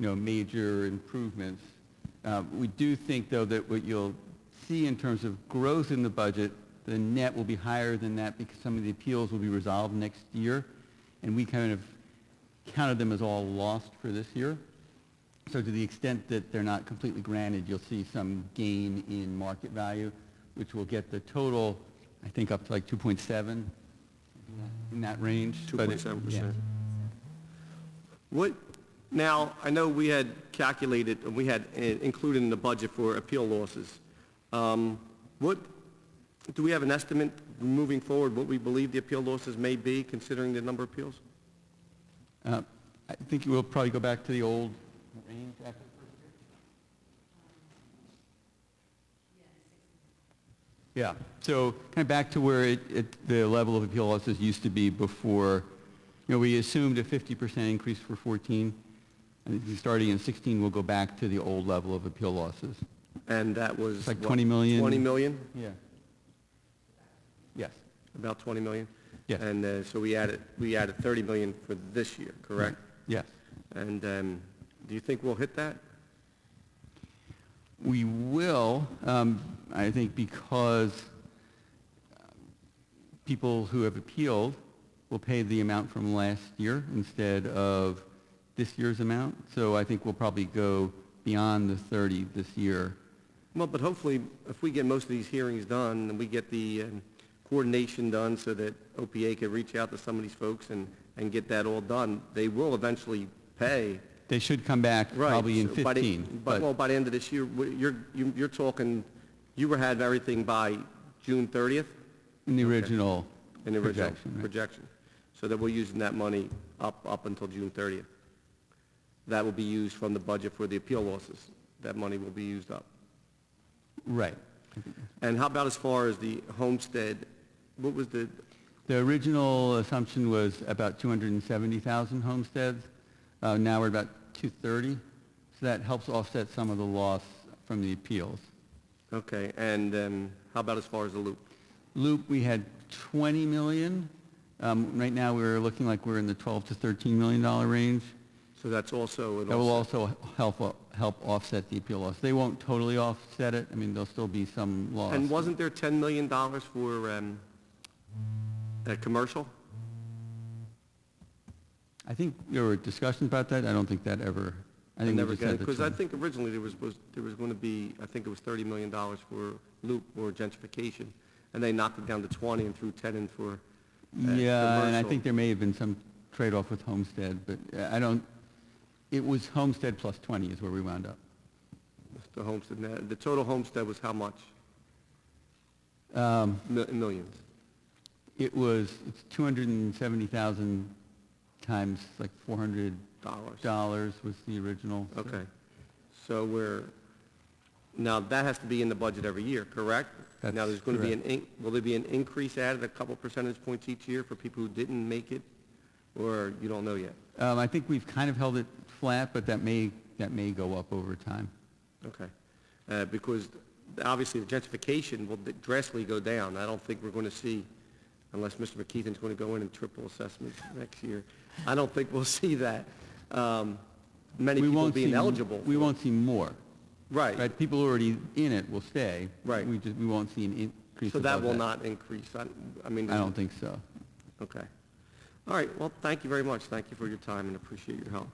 you know, major improvements. Uh, We do think, though, that what you'll see in terms of growth in the budget, the net will be higher than that because some of the appeals will be resolved next year, and we kind of counted them as all lost for this year. So to the extent that they're not completely granted, you'll see some gain in market value, which will get the total, I think, up to like 2.7, in that range. but it- 2.7%. What, now, I know we had calculated, and we had uh, included in the budget for appeal losses. Um, What, do we have an estimate moving forward, what we believe the appeal losses may be, considering the number of appeals? Uh, I think we'll probably go back to the old range after. Yeah, so kind of back to where it, it, the level of appeal losses used to be before, you know, we assumed a 50% increase for 14. And if you starting in 16, we'll go back to the old level of appeal losses. And that was... It's like what, 20 million. 20 million, Yeah. Yes, about 20 million? Yes. And uh, so we added, we added 30 million for this year, correct? yes. Mm-hmm. And um, do you think we'll hit that? We will, um, I think because uh, people who have appealed will pay the amount from last year instead of this year's amount. So I think we'll probably go beyond the 30 this year. Well, but hopefully, if we get most of these hearings done, and we get the um, coordination done so that OPA can reach out to some of these folks and, and get that all done, they will eventually pay. They should come back Right. probably in so by the- 15. But, well, by the end of this year, we- you're, you- you're talking, you were had everything by June 30th in the original in the original projection, right? projection. So that we're using that money up, up until June 30th. That will be used from the budget for the appeal losses. That money will be used up. Right. And how about as far as the homestead, what was the, The original assumption was about 270,000 homesteads. Uh, now we're about 230. So that helps offset some of the loss from the appeals. okay, and um, how about as far as the loop? Loop, we had 20 million. Um, Right now, we're looking like we're in the 12 to 13 million dollar range. So that's also, an That will offset. also help, uh, help offset the appeal loss. They won't totally offset it. I mean, there'll still be some loss. and wasn't there $10 million for um, a commercial? I think there were discussions about that. I don't think that ever, I think we never just had the Because I 20. think originally there was, was, there was going to be, I think it was $30 million for loop or gentrification, and they knocked it down to 20 and threw 10 in for uh, Yeah, and I commercial. think there may have been some trade-off with Homestead, but uh, I don't, it was Homestead plus 20 is where we wound up. The homestead, now, the total homestead was how much? Um, Mil- Millions. It was, it's 270,000 times like 400 Dollars. dollars was the original. so- Okay. So we're, now that has to be in the budget every year, correct? Now, That's there's going to be an, in- will there be an increase added, a couple percentage points each year for people who didn't make it? Or you don't know yet? Um, I think we've kind of held it flat, but that may, that may go up over time. Okay. Uh, Because obviously the gentrification will drastically go down. I don't think we're going to see, unless Mr. McKeithen's going to go in and triple assessments next year, I don't think we'll see that. Um, Many We people won't see being m- eligible. We for- won't see more, Right. right? People already in it will stay. Right. We just, we won't see an increase So that above will not increase. I I mean... I don't think so. Okay. All right, well, thank you very much. Thank you for your time and appreciate your help.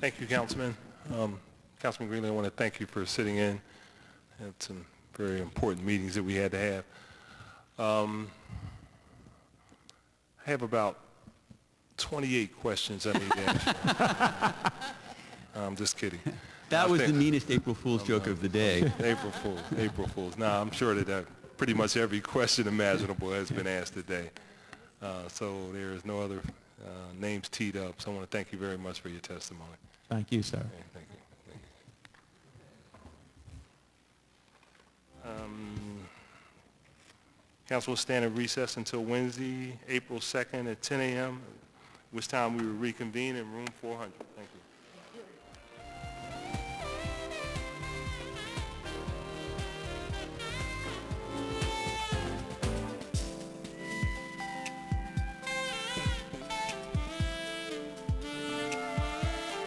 Thank you, Councilman. Um, Councilman Greeley, I want to thank you for sitting in. Had some very important meetings that we had to have. Um, I have about 28 questions I need to ask. you. I'm just kidding. That I was the think- meanest April Fool's joke of the day. April Fools, April Fools. Now, I'm sure that uh, pretty much every question imaginable has been asked today. Uh, So there is no other uh, names teed up, so I want to thank you very much for your testimony. Thank you, sir. Okay, Thank you. Thank you. Um, Council will stand in recess until Wednesday, April 2nd at 10 a.m., which time we will reconvene in room 400. Thank you.